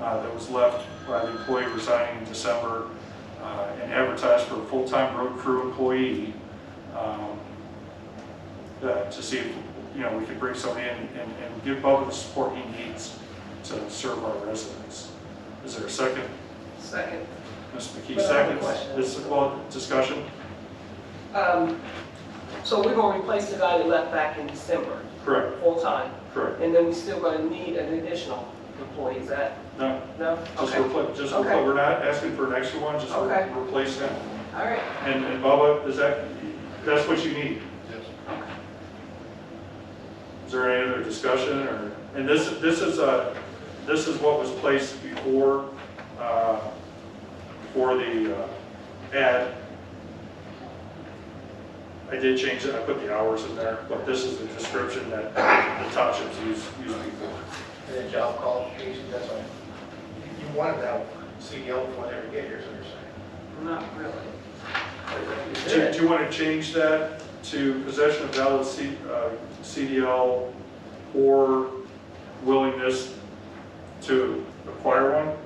uh, that was left by the employee resigning in December uh, and advertised for a full-time road crew employee um, uh, to see if, you know, we could bring somebody in and and give Bubba the support he needs to serve our residents. Is there a second? Second. Ms. McKee Well, I have a seconds. question. This is, well, discussion? Um, So we're going to replace the guy that left back in December, Correct, full-time, correct. and then we still going to need an additional employee, is that, No, no? just Okay, all replace, just Okay. replace, we're not asking for an extra one, just Okay. re- replace him. right, And and Bubba, is that, that's what you need? Yes. Is there any other discussion or, and this, this is a, this is what was placed before, uh, for the uh, ad. I did change it, I put the hours in there, but this is the description that the townships use, use before. And then job qualifications, that's why you wanted that CDL E before they ever get here, so you're saying. not really. Do do you want to change that to possession of valid C- uh, CDL or willingness to acquire one?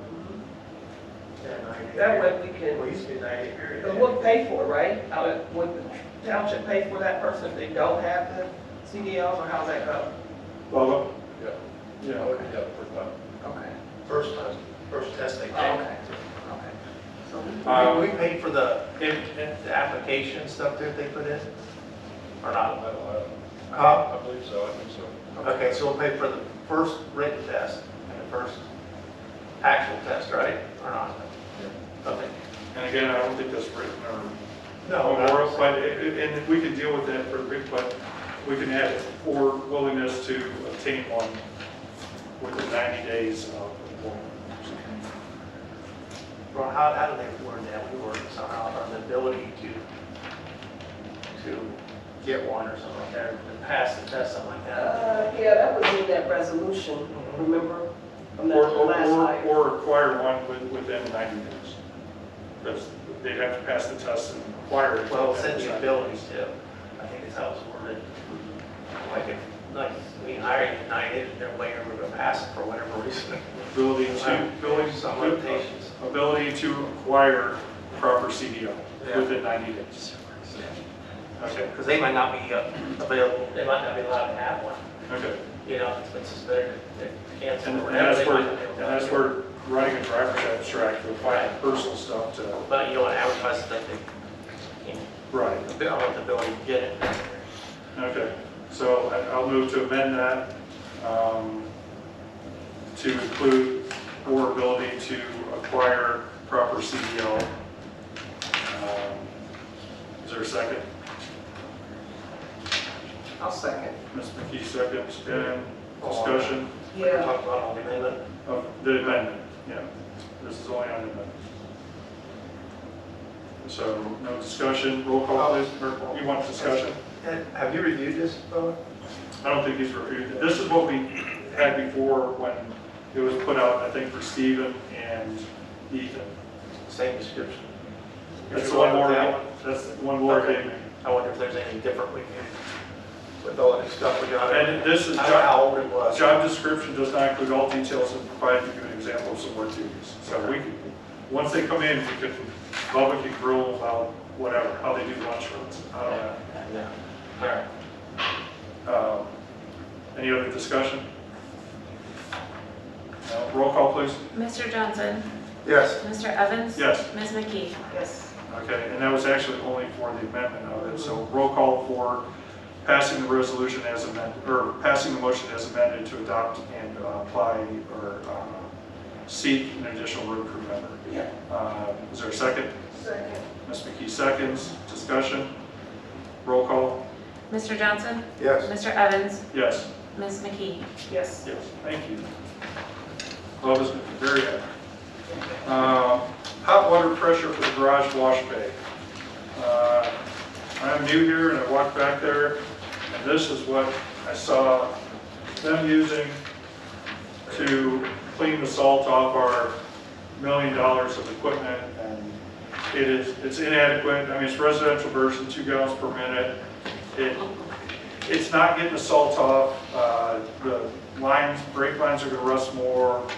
Yeah, ninety. That way we Well, it can, used to be ninety period. and we'll pay for it, right? How it- Would the township pay for that person if they don't have the CDLs, or how's that go? Bubba? Yeah. Yeah. Okay, First time, first test they take. okay, okay. So we- Um, We we paid for the, the application stuff that they put in, or not? Huh? I believe so, I think so. Okay, so we'll pay for the first written test and the first actual test, right, or not? Okay. And again, I don't think that's written or No, or- but, i- i- and we can deal with that for, but we can add or willingness to obtain one within 90 days of employment. Ron, how, how do they word that? We word it somehow, on the ability to, to get one or something like that, or to pass the test, something like that. Uh, yeah, that was in that resolution, remember? From Mm-hmm. that Or, or, last or- hire. or acquire one with- within 90 days. That's, they'd have to pass the test and acquire it. Well, send the abilities to, I think is how it's worded. Like if, like, we hire United, they're way over to pass it for whatever reason. Ability to, ability, Some limitations. ability to acquire proper CDL Yeah. within 90 days. Okay, Because they might not be uh, available, they might not be allowed to have one, okay. you know, it's just they're, they're canceled And or and whatever. that's they where, might not be able and to that's do. where writing a driver's abstract with my personal stuff to, But you don't advertise that they, you know, right, I want the building to get it. okay. So I- I'll move to amend that um, to include or ability to acquire proper CDL. Um, Is there a second? I'll second. Ms. McKee, seconds, and discussion We're Yeah, talking about all the amendment. of the amendment, yeah. This is only on amendment. So no discussion, roll call, please. Or You want discussion? Have you reviewed this, Bo? I don't think these were, this is what we had before when it was put out, I think, for Stephen and Ethan. Same description. That's the one more, That one. that's the one more thing. I wonder if there's anything different we can, with all the stuff we got. And this I is, don't know how job, old it was. job description does not include all details and provides you an example of some work duties. So we can, once they come in, we can, Bubba can grill about whatever, how they do lunch runs, I don't know. Yeah. All right. Um, Any other discussion? No, Roll call, please. Mr. Johnson? Yes. Mr. Evans? Yes. Ms. McKee? yes, Okay, and that was actually only for the amendment of it, so roll call for passing the resolution as amended, or passing the motion as amended to adopt and uh, apply or uh, seek an additional road crew member. yeah, Uh, Is there a second? second, Ms. McKee seconds, discussion, roll call, Mr. Johnson? Yes. Mr. Evans? yes. Ms. McKee? yes. Yes, thank you. Oh, Bob has been very active. Uh, Hot water pressure for the garage wash bay. Uh, I'm new here and I walked back there, and this is what I saw them using to clean the salt off our million dollars of equipment. And It is, it's inadequate, I mean, it's residential version, two gallons per minute. It it's not getting the salt off, uh, the lines, brake lines are gonna rust more,